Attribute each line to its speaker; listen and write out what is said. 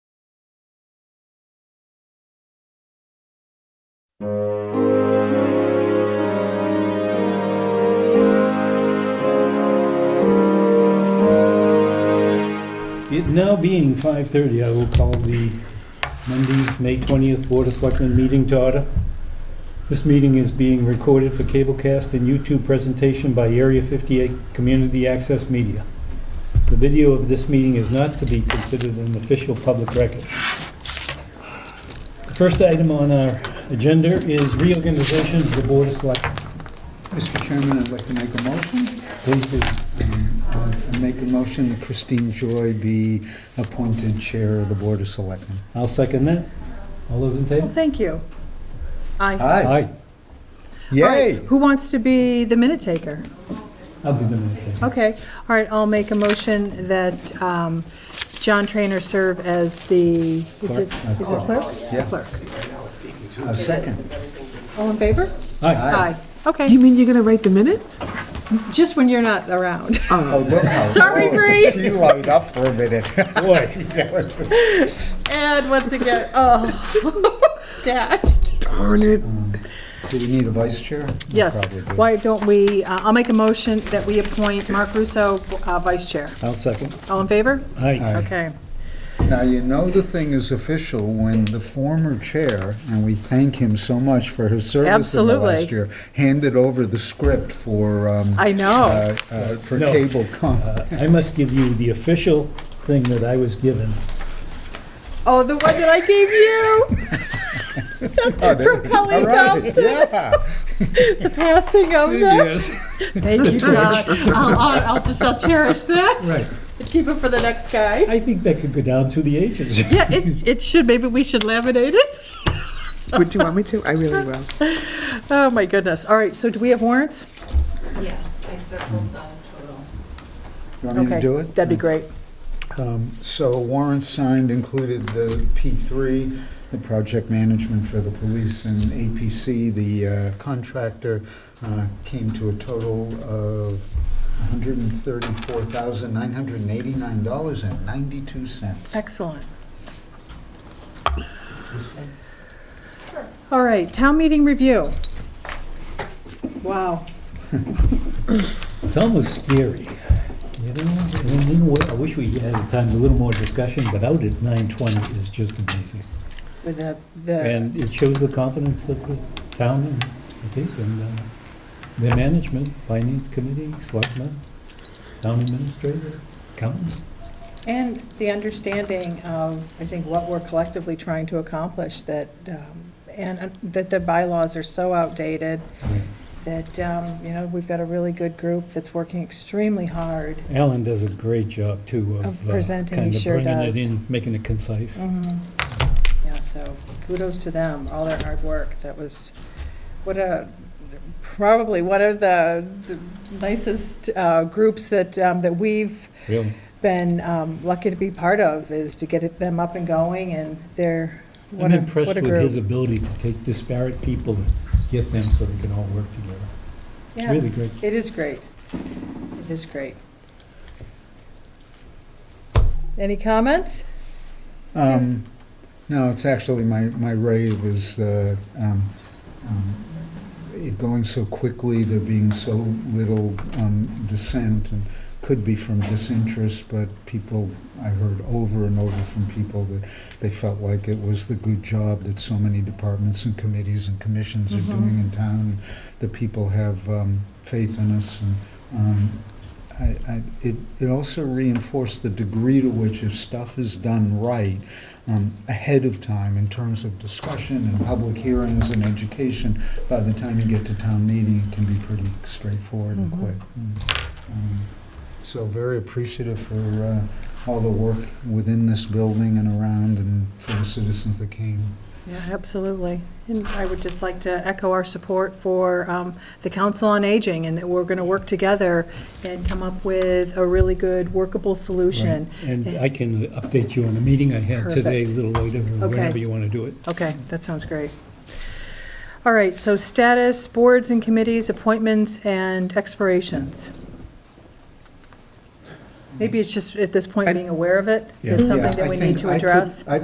Speaker 1: It now being 5:30, I will call the Monday, May 20th Board of Selectmen meeting to order. This meeting is being recorded for cablecast and YouTube presentation by Area 58 Community Access Media. The video of this meeting is not to be considered an official public record. The first item on our agenda is reorganization of the Board of Selectmen.
Speaker 2: Mr. Chairman, I'd like to make a motion. Um,
Speaker 1: Please do.
Speaker 2: I make a motion that Christine Joy be appointed Chair of the Board of Selectmen.
Speaker 1: I'll second that. All those in
Speaker 3: Well,
Speaker 1: favor?
Speaker 3: thank you. Aye.
Speaker 2: Aye.
Speaker 3: All right,
Speaker 2: Uh, Yay!
Speaker 3: Who wants to be the minute taker?
Speaker 1: I'll be the minute taker.
Speaker 3: Okay, all right, I'll make a motion that um, John Trainer serve as the, is it
Speaker 2: Clerk.
Speaker 3: is it clerk?
Speaker 2: Yeah.
Speaker 3: Clerk.
Speaker 2: A second.
Speaker 3: All in favor?
Speaker 1: Aye.
Speaker 3: Aye. Okay,
Speaker 4: You mean you're gonna write the minute?
Speaker 3: just when you're not around.
Speaker 2: Oh, look how-
Speaker 3: Sorry, Bree.
Speaker 2: She lighted up for a minute.
Speaker 1: Boy.
Speaker 3: And once again, oh, dashed.
Speaker 4: Darn it.
Speaker 2: Do we need a vice chair? We
Speaker 3: Yes,
Speaker 2: probably do.
Speaker 3: why don't we, uh, I'll make a motion that we appoint Mark Russo uh, vice chair.
Speaker 2: I'll second.
Speaker 3: All in favor?
Speaker 1: Aye.
Speaker 3: Okay.
Speaker 2: Now, you know the thing is official when the former chair, and we thank him so much for his service in the
Speaker 3: Absolutely.
Speaker 2: last year, handed over the script for, um,
Speaker 3: I know.
Speaker 2: uh, uh, for
Speaker 1: No.
Speaker 2: cable com.
Speaker 1: Uh, I must give you the official thing that I was given.
Speaker 3: Oh, the one that I gave you,
Speaker 2: Oh,
Speaker 3: from Kelly
Speaker 2: All right,
Speaker 3: Thompson.
Speaker 2: Yeah.
Speaker 3: the passing of that. Thank you, John. I'll, I'll, I'll just, I'll cherish that.
Speaker 1: Right.
Speaker 3: Keep it for the next guy.
Speaker 1: I think that could go down through the ages.
Speaker 3: Yeah, it, it should. Maybe we should laminate it.
Speaker 4: Would you want me to? I really will.
Speaker 3: Oh, my goodness. All right, so do we have warrants?
Speaker 5: Yes, I circled the total.
Speaker 2: You want me
Speaker 3: Okay,
Speaker 2: to do it?
Speaker 3: That'd be great.
Speaker 2: Um, So warrants signed included the P3, the project management for the police and APC. The uh, contractor uh, came to a total of $134,989.92.
Speaker 3: Excellent. All right, town meeting review. Wow.
Speaker 1: It's almost scary, you know? I mean, you know what, I wish we had a time, a little more discussion, but out at 9:20 is just amazing.
Speaker 4: With that, the,
Speaker 1: And it shows the confidence of the town, and I think, and uh, their management, finance committee, selectmen, town administrator, accountants.
Speaker 3: And the understanding of, I think, what we're collectively trying to accomplish, that, um, and uh, that the bylaws are so outdated, that, um, you know, we've got a really good group that's working extremely hard.
Speaker 1: Alan does a great job, too, of.
Speaker 3: Of
Speaker 1: uh,
Speaker 3: presenting, he
Speaker 1: kinda
Speaker 3: sure
Speaker 1: Bringing it
Speaker 3: does. Mm.
Speaker 1: in, making it concise.
Speaker 3: Mm-hmm. Yeah, so kudos to them, all their hard work. That was, what a, probably one of the the nicest uh, groups that, um, that we've
Speaker 1: Really,
Speaker 3: been um, lucky to be part of, is to get it- them up and going, and they're,
Speaker 1: I'm
Speaker 3: what a,
Speaker 1: impressed
Speaker 3: what a
Speaker 1: with his
Speaker 3: group.
Speaker 1: ability to take disparate people and get them so they can all work together. It's
Speaker 3: Yeah,
Speaker 1: really great.
Speaker 3: It is great. It is great. Any comments?
Speaker 2: Um, No, it's actually, my, my rave is uh, um, um, it going so quickly, there being so little um, dissent, and could be from disinterest, but people, I heard over and over from people that they felt like it was the good job that so many departments and committees and commissions are
Speaker 3: Mhm.
Speaker 2: doing in town. The people have um, faith in us, and um, I, I, it, it also reinforced the degree to which if stuff is done right, um, ahead of time in terms of discussion and public hearings and education, by the time you get to town meeting, it can be pretty straightforward and
Speaker 3: Mhm.
Speaker 2: quick. Mm, um, So very appreciative for uh, all the work within this building and around and for the citizens that came.
Speaker 3: Yeah, absolutely. And I would just like to echo our support for um, the Council on Aging, and that we're going to work together and come up with a really good workable solution.
Speaker 1: And I can update you on a meeting I had today, a
Speaker 3: Perfect.
Speaker 1: little later, or
Speaker 3: Okay.
Speaker 1: whenever you want to do it.
Speaker 3: Okay, that sounds great. All right, so status, boards and committees, appointments and expirations. Maybe it's just at this point being aware of it,
Speaker 1: Yeah.
Speaker 3: it's something
Speaker 2: Yeah,
Speaker 3: that
Speaker 2: I
Speaker 3: we
Speaker 2: think
Speaker 3: need to
Speaker 2: I could-
Speaker 3: address.
Speaker 2: I